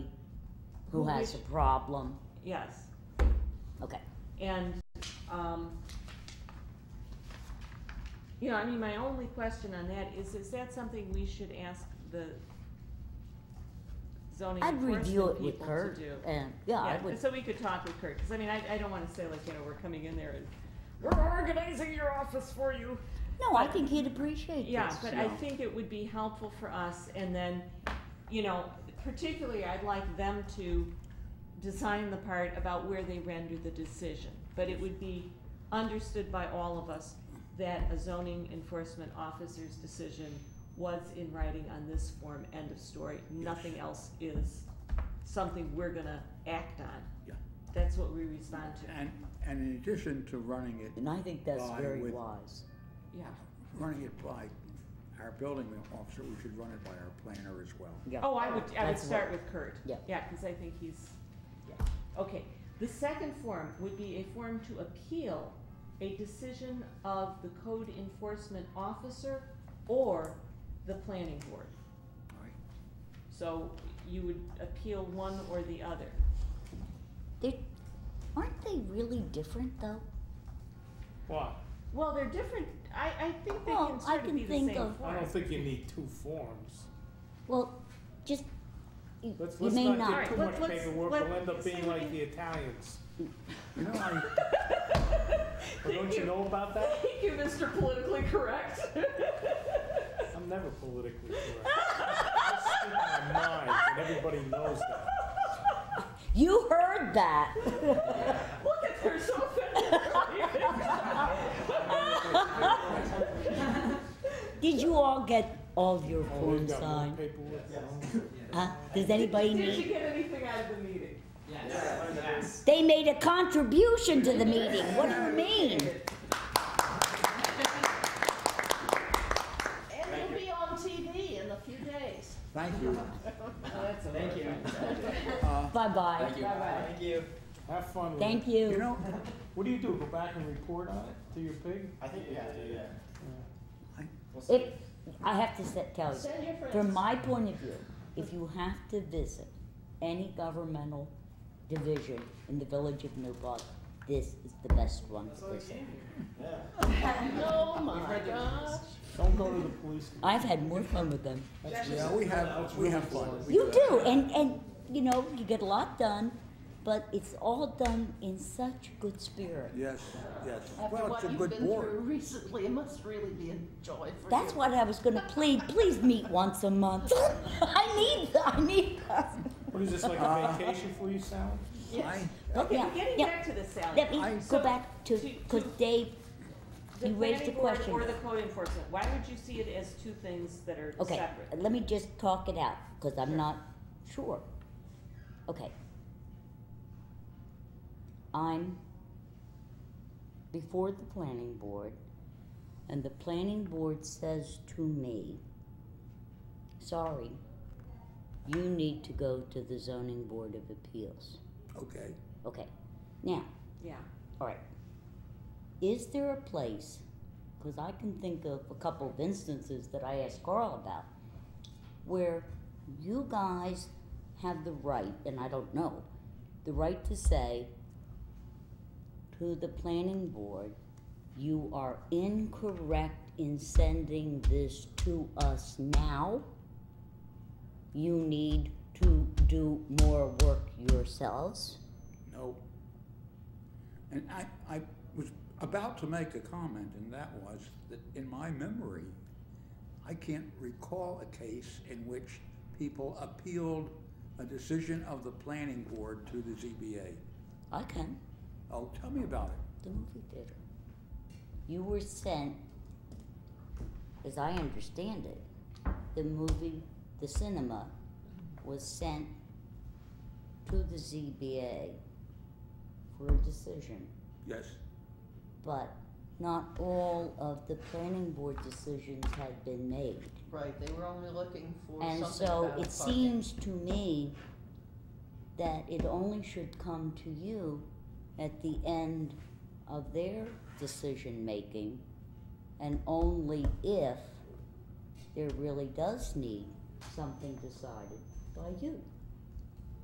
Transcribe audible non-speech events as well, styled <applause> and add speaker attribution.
Speaker 1: who
Speaker 2: Who
Speaker 1: has a
Speaker 2: wish-
Speaker 1: problem.
Speaker 2: Yes,
Speaker 1: Okay,
Speaker 2: and, um, you know, I mean, my only question on that is, is that something we should ask the zoning
Speaker 1: I'd
Speaker 2: enforcement
Speaker 1: review
Speaker 2: people to
Speaker 1: it
Speaker 2: do?
Speaker 1: with Kurt and, yeah, I
Speaker 2: Yeah,
Speaker 1: would,
Speaker 2: so we could talk with Kurt, cause I mean, I, I don't wanna say like, you know, we're coming in there and, we're organizing your office for you.
Speaker 1: no, I think he'd appreciate this.
Speaker 2: Yeah, but I
Speaker 3: yeah.
Speaker 2: think it would be helpful for us, and then, you know, particularly, I'd like them to design the part about where they render the decision. But it would be understood by all of us that a zoning enforcement officer's decision was in writing on this form, end of story. Nothing else is something we're gonna act on.
Speaker 3: Yeah.
Speaker 2: That's what we respond to,
Speaker 3: And, and in addition to running it,
Speaker 1: And I think that's
Speaker 3: Well, I
Speaker 1: very
Speaker 3: would-
Speaker 1: wise.
Speaker 2: yeah.
Speaker 3: running it by our building officer, we should run it by our planner as well.
Speaker 1: Yeah.
Speaker 2: Oh, I would, I would
Speaker 1: That's
Speaker 2: start
Speaker 1: what-
Speaker 2: with Kurt.
Speaker 1: Yeah.
Speaker 2: Yeah, cause I think he's,
Speaker 1: Yeah.
Speaker 2: okay. The second form would be a form to appeal a decision of the code enforcement officer or the planning board.
Speaker 3: All right.
Speaker 2: So you would appeal one or the other.
Speaker 1: They, aren't they really different though?
Speaker 4: Why?
Speaker 2: Well, they're different, I, I think they
Speaker 1: Well,
Speaker 2: can
Speaker 1: I
Speaker 2: sort of
Speaker 1: can
Speaker 2: be the same
Speaker 1: think
Speaker 2: form.
Speaker 1: of-
Speaker 4: I
Speaker 2: <laughs>
Speaker 4: don't think you need two forms.
Speaker 1: Well, just, you,
Speaker 4: Let's,
Speaker 1: you
Speaker 4: let's
Speaker 1: may
Speaker 4: not
Speaker 1: not.
Speaker 4: get too
Speaker 2: Alright,
Speaker 4: much
Speaker 2: let's- let's-
Speaker 4: paperwork,
Speaker 2: let-
Speaker 4: we'll end up
Speaker 2: let's see
Speaker 4: being
Speaker 2: what
Speaker 4: like
Speaker 2: we-
Speaker 4: the Italians.
Speaker 3: You know, I,
Speaker 4: Well, don't you know about that?
Speaker 2: Thank you, Mr. Politically Correct. <laughs>
Speaker 4: I'm never politically correct. I speak my mind, and everybody knows that.
Speaker 1: You heard
Speaker 2: <laughs>
Speaker 1: that.
Speaker 2: Look at, they're so
Speaker 1: <laughs>
Speaker 2: offended.
Speaker 1: Did you all get all of your
Speaker 4: Oh, we've
Speaker 1: forms
Speaker 4: got more
Speaker 1: signed?
Speaker 4: paperwork.
Speaker 1: Huh? Does anybody
Speaker 2: Did you
Speaker 1: need?
Speaker 2: get anything out of the meeting?
Speaker 1: They made a contribution to the meeting. What do you mean?
Speaker 5: And it'll be on TV in a few days.
Speaker 3: thank you.
Speaker 5: Thank you.
Speaker 3: Uh,
Speaker 1: Bye bye.
Speaker 5: Bye-bye.
Speaker 4: Have fun with
Speaker 1: Thank
Speaker 4: it.
Speaker 3: You
Speaker 1: you.
Speaker 3: know,
Speaker 4: What do you do, go back and report on it to your pig?
Speaker 6: I think we have to do that.
Speaker 1: If I have to sa- tell you,
Speaker 5: Send your
Speaker 1: from
Speaker 5: friends.
Speaker 1: my point of view, if you have to visit any governmental division in the village of New Paltz, this is the best one to visit.
Speaker 6: Yeah.
Speaker 5: Oh my gosh.
Speaker 4: Don't go to the police.
Speaker 1: I've had more fun with them.
Speaker 4: That's
Speaker 3: yeah,
Speaker 4: really-
Speaker 3: we have, we have fun. We
Speaker 1: You do, and and you know you get a lot done, but it's all done in such good spirit.
Speaker 3: Yes, yes.
Speaker 5: After
Speaker 3: Well, it's
Speaker 5: what
Speaker 3: a
Speaker 5: you've
Speaker 3: good
Speaker 5: been through
Speaker 3: board.
Speaker 5: recently, it must really be a joy for you.
Speaker 1: That's what I was going to plead. Please meet once a month. <laughs> I need I need.
Speaker 4: What is this, like a vacation for you, Sally?
Speaker 3: I,
Speaker 1: But
Speaker 2: Okay,
Speaker 1: yeah,
Speaker 2: getting
Speaker 1: yeah.
Speaker 2: back to the salary.
Speaker 1: Let me
Speaker 3: I-
Speaker 1: go
Speaker 2: so,
Speaker 1: back to
Speaker 2: to-
Speaker 1: because
Speaker 2: to-
Speaker 1: Dave.
Speaker 2: The
Speaker 1: you raised
Speaker 2: planning
Speaker 1: a
Speaker 2: board
Speaker 1: question.
Speaker 2: Or the code enforcement, why would you see it as two things that are
Speaker 1: Okay, Uh,
Speaker 2: separate?
Speaker 1: let me just talk it out because I'm
Speaker 2: Sure.
Speaker 1: not sure. Okay. I'm before the planning board, and the planning board says to me, sorry, you need to go to the zoning board of appeals.
Speaker 3: okay.
Speaker 1: Okay, now,
Speaker 2: Yeah,
Speaker 1: all right. Is there a place, because I can think of a couple of instances that I asked Carl about, where you guys have the right, and I don't know, the right to say to the planning board, you are incorrect in sending this to us now. You need to do more work yourselves.
Speaker 3: No. And I, I was about to make a comment, and that was that in my memory, I can't recall a case in which people appealed a decision of the planning board to the ZBA.
Speaker 1: I can.
Speaker 3: Oh, tell me about it.
Speaker 1: the movie theater. You were sent, as I understand it, the movie, the cinema was sent to the ZBA for a decision,
Speaker 3: Yes,
Speaker 1: but not all of the planning board decisions had been made.
Speaker 5: Right, they were only looking for
Speaker 1: And
Speaker 5: something
Speaker 1: so
Speaker 5: about
Speaker 1: it
Speaker 5: parking.
Speaker 1: seems to me that it only should come to you at the end of their decision-making and only if there really does need something decided by you.